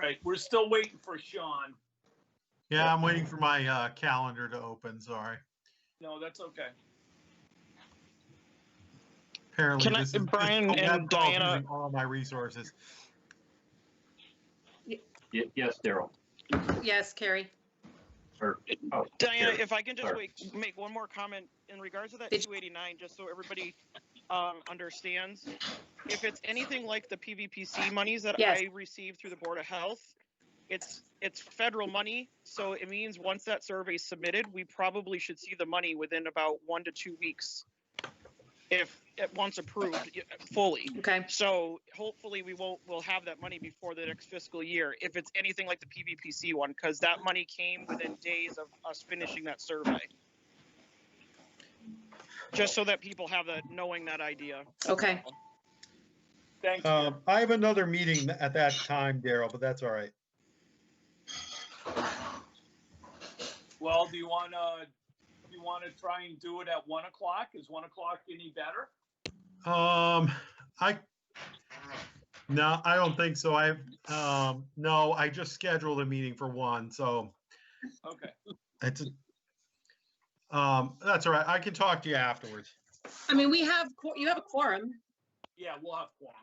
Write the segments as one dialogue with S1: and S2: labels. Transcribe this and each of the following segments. S1: right, we're still waiting for Sean.
S2: Yeah, I'm waiting for my uh, calendar to open, sorry.
S1: No, that's okay.
S2: Apparently
S3: Can I-
S2: this is.
S3: Brian
S2: this
S3: and
S2: laptop is
S3: Diana-
S2: using All my resources.
S4: Ye- Yes, Daryl.
S5: Yes, Carrie.
S4: Or, oh,
S3: Diana,
S4: Sure.
S3: if I can just
S4: Sure.
S3: wait, make one more comment in regards to that
S5: Did-
S3: 289, just so everybody um, understands. If it's anything like the PVPC monies that
S5: Yes.
S3: I received through the Board of Health, it's it's federal money, so it means once that survey's submitted, we probably should see the money within about one to two weeks, if it once approved y- fully.
S5: Okay.
S3: So hopefully we won't, we'll have that money before the next fiscal year, if it's anything like the PVPC one, because that money came within days of us finishing that survey. Just so that people have that, knowing that idea.
S5: Okay.
S1: Thanks.
S6: Um, I have another meeting at that time, Daryl, but that's all right.
S1: Well, do you wanna, do you wanna try and do it at one o'clock? Is one o'clock any better?
S2: Um, I, no, I don't think so. I, um, no, I just scheduled a meeting for one, so
S1: Okay,
S2: it's, um, that's all right. I can talk to you afterwards.
S5: I mean, we have, qu- you have a quorum.
S1: yeah, we'll have quorum.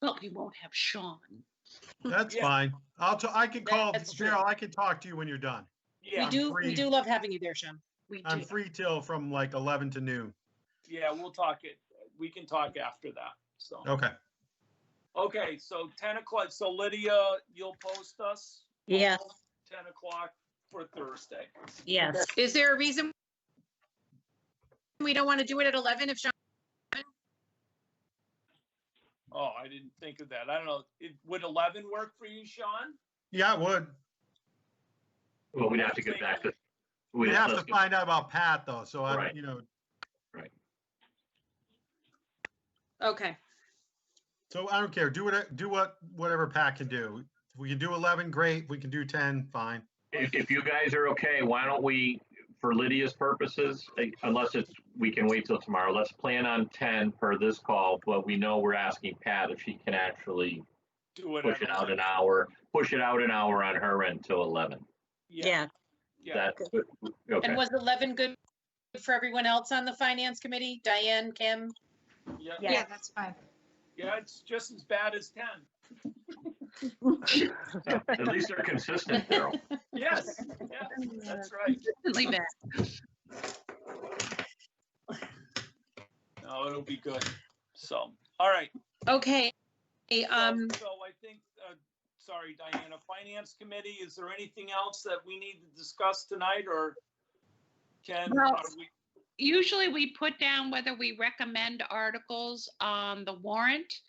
S5: Well, we won't have Sean.
S3: Hmm.
S2: That's
S1: Yeah.
S2: fine. I'll, t- I can call,
S5: That's true.
S2: Daryl, I can talk to you when you're done.
S5: We
S1: Yeah,
S5: do,
S2: free.
S5: we do love having you there, Sean. We
S2: I'm
S5: do.
S2: free till from like 11 to noon.
S1: yeah, we'll talk it, we can talk after that, so.
S2: Okay.
S1: Okay, so ten o'clock, so Lydia, you'll post us?
S7: Yes.
S1: Ten o'clock for Thursday.
S7: Yes,
S5: Is there a reason we don't want to do it at 11 if Sean?
S1: Oh, I didn't think of that. I don't know. It- Would eleven work for you, Sean?
S2: Yeah, I would.
S4: well, we'd have to get back to. we'd
S2: We have to
S4: let's get-
S2: find out about Pat though, so I,
S4: Right.
S2: you know,
S5: Okay.
S2: so I don't care. Do what, do what, whatever Pat can do. If we can do 11, great. If we can do 10, fine.
S4: If, if you guys are okay, why don't we, for Lydia's purposes, eh, unless it's, we can wait till tomorrow, let's plan on ten per this call, but we know we're asking Pat if she can actually
S1: Do it.
S4: push it out an hour, push it out an hour on her end till eleven.
S1: Yeah,
S7: yeah,
S1: yeah.
S4: That, okay.
S5: And was 11 good for everyone else on the finance committee? Diane, Kim?
S1: Yeah,
S7: yeah.
S8: that's fine.
S1: yeah, it's just as bad as ten.
S4: At least they're consistent, Daryl.
S1: Yes, yeah, that's right.
S5: Leave that.
S1: No, it'll be good. So, all right.
S5: Okay. Hey,
S1: So-
S5: Um,
S1: So I think, uh, sorry, Diana, Finance Committee, is there anything else that we need to discuss tonight or can,
S9: Well-
S1: are we,
S9: usually we put down whether we recommend articles on the warrant.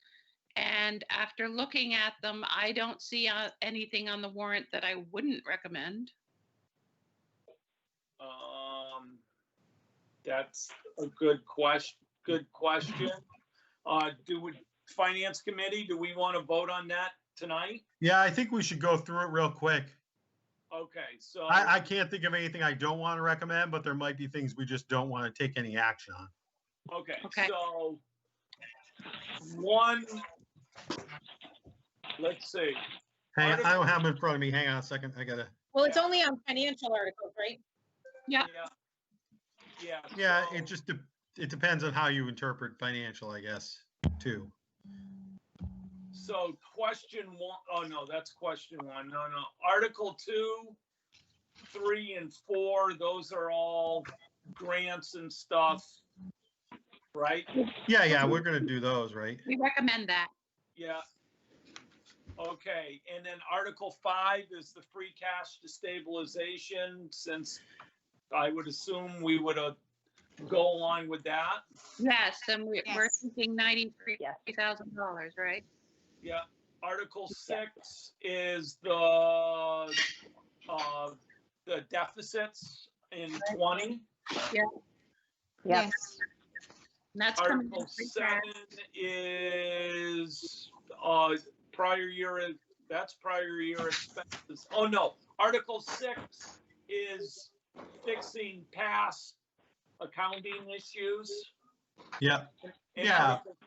S9: And after looking at them, I don't see uh, anything on the warrant that I wouldn't recommend.
S1: Um, that's a good question, good question. Uh, do we, Finance Committee, do we want to vote on that tonight?
S2: Yeah, I think we should go through it real quick.
S1: Okay, so.
S2: I, I can't think of anything I don't want to recommend, but there might be things we just don't want to take any action on.
S1: Okay,
S9: Okay.
S1: so one, let's see,
S2: Hang, on, I don't have them in front of me. Hang on a second. I gotta,
S5: well, it's only on financial articles, right?
S1: yeah.
S9: Yeah.
S1: Yeah.
S2: yeah,
S1: so-
S2: it just, de- it depends on how you interpret financial, I guess, too.
S1: So question one, oh no, that's question one, no, no, Article two, three and four, those are all grants and stuff, right?
S2: Yeah, yeah, we're gonna do those, right?
S9: We recommend that.
S1: Yeah. Okay, and then Article five is the free cash to stabilization, since I would assume we would uh, go along with that.
S9: Yes, and we- we're
S8: Yes.
S9: thinking $93,000, right?
S1: Yeah, Article six is the, uh, the deficits in twenty.
S7: Yes.
S9: And that's coming
S1: Article
S9: from free
S1: seven
S9: cash.
S1: is, uh, prior year, that's prior year expenses. Oh, no, Article six is fixing past accounting issues.
S2: Yeah.
S1: And
S2: Yeah.
S1: Article-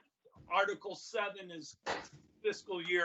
S1: Article seven is fiscal year